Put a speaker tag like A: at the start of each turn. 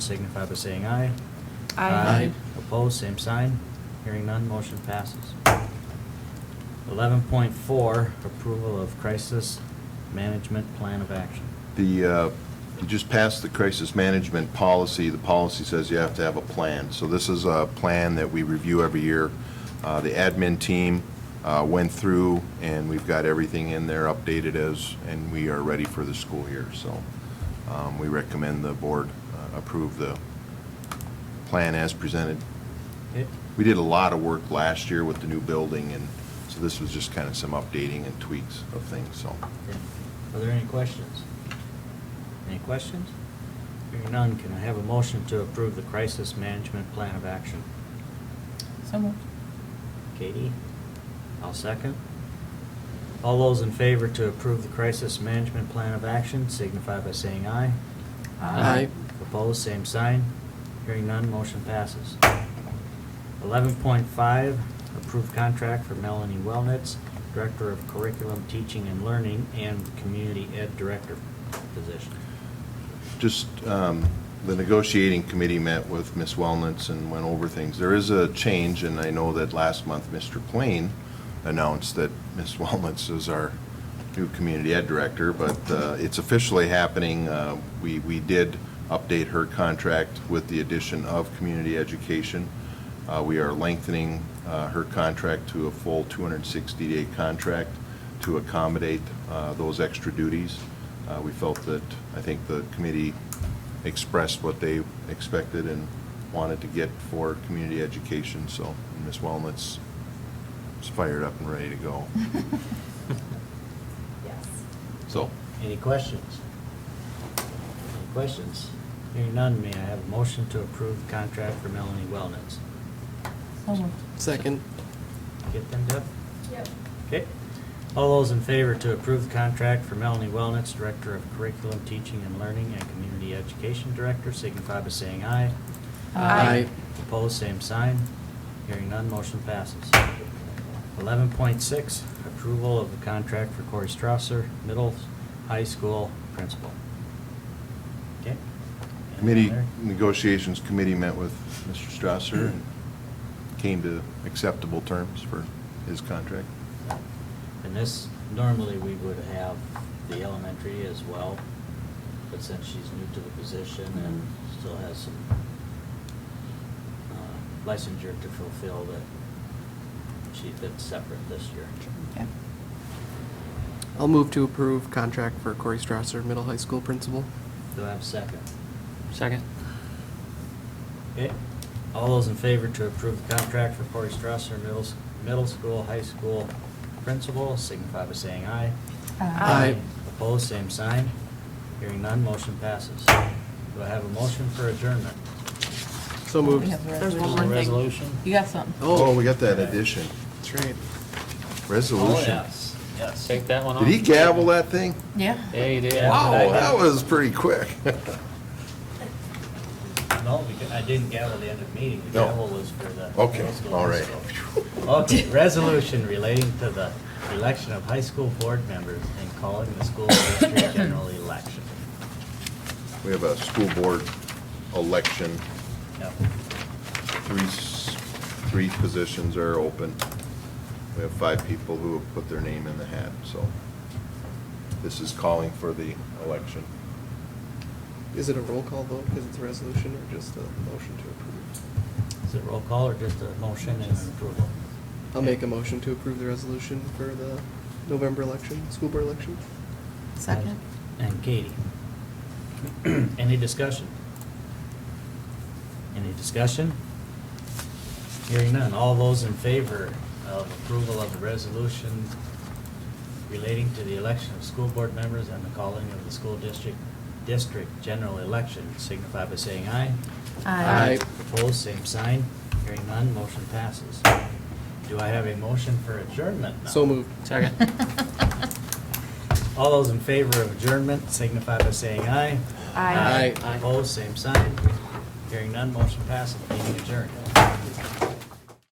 A: signify by saying aye.
B: Aye.
A: Opposed, same sign. Hearing none, motion passes. Eleven point four, approval of crisis management plan of action.
C: The, uh, you just passed the crisis management policy. The policy says you have to have a plan. So this is a plan that we review every year. Uh, The admin team uh, went through, and we've got everything in there updated as, and we are ready for the school year. So um, we recommend the board uh, approve the plan as presented.
A: Okay,
C: We did a lot of work last year with the new building, and so this was just kind of some updating and tweaks of things, so.
A: okay. Are there any questions? Any questions? Hearing none, can I have a motion to approve the crisis management plan of action?
B: So moved.
A: Katie? I'll second. All those in favor to approve the crisis management plan of action signify by saying aye.
B: Aye. Aye.
A: Opposed, same sign. Hearing none, motion passes. Eleven point five, approved contract for Melanie Wellnitz, Director of Curriculum, Teaching and Learning, and Community Ed Director position.
C: Just, um, the negotiating committee met with Ms. Wellnitz and went over things. There is a change, and I know that last month, Mr. Plain announced that Ms. Wellnitz is our new community ed director, but uh, it's officially happening. Uh, We, we did update her contract with the addition of community education. Uh, We are lengthening uh, her contract to a full 260-day contract to accommodate uh, those extra duties. Uh, We felt that, I think the committee expressed what they expected and wanted to get for community education, so Ms. Wellnitz is fired up and ready to go.
D: Yes.
C: So,
A: Any questions? Any questions? Hearing none, may I have a motion to approve the contract for Melanie Wellnitz?
B: So moved.
E: Second.
A: Get them, Deb?
D: Yep.
A: Okay. All those in favor to approve the contract for Melanie Wellnitz, Director of Curriculum, Teaching and Learning, and Community Education Director, signify by saying aye.
B: Aye.
A: Opposed, same sign. Hearing none, motion passes. Eleven point six, approval of the contract for Corey Strasser, middle, high school principal. Okay? Anything
C: committee,
A: there?
C: negotiations committee met with Mr. Strasser and came to acceptable terms for his contract.
A: And this, normally we would have the elementary as well, but since she's new to the position and still has some uh, licensure to fulfill that she did separate this year.
B: Yep.
E: I'll move to approve contract for Corey Strasser, middle high school principal.
A: Do I have a second?
F: Second.
A: Okay, all those in favor to approve the contract for Corey Strasser, middle, s- middle school, high school principal, signify by saying aye.
E: Aye.
A: Opposed, same sign. Hearing none, motion passes. Do I have a motion for adjournment?
E: So moved.
B: We have the
A: There's
B: resolution.
A: one more thing. Resolution.
B: You got something.
C: Oh, we got that addition.
E: That's right.
A: Oh,
C: Resolution.
A: yes, yes.
F: Take that one off.
C: Did he gavel that thing?
B: Yeah.
F: Yeah, he did.
C: Wow,
F: I did.
C: that was pretty quick.
A: No, because I didn't gavel the end of the meeting, the
C: No.
A: gavel was for the.
C: Okay,
A: middle school,
C: all
A: high
C: right.
A: school. Okay, resolution relating to the election of high school board members and calling the school district general election.
C: We have a school board election.
A: Yep.
C: Three, s- three positions are open. We have five people who have put their name in the hat, so this is calling for the election.
E: Is it a roll call vote because it's a resolution or just a motion to approve?
A: Is it roll call or just a motion and an approval?
E: I'll make a motion to approve the resolution for the November election, school board election.
B: Second.
A: And Katie. Any discussion? Any discussion? Hearing none. All those in favor of approval of the resolution relating to the election of school board members and the calling of the school district, district general election signify by saying aye.
B: Aye.
E: Aye.
A: Opposed, same sign. Hearing none, motion passes. Do I have a motion for adjournment now?
E: So moved.
F: Second.
A: All those in favor of adjournment signify by saying aye.
D: Aye.
E: Aye.
A: Opposed, same sign. Hearing none, motion passes, meeting adjourned.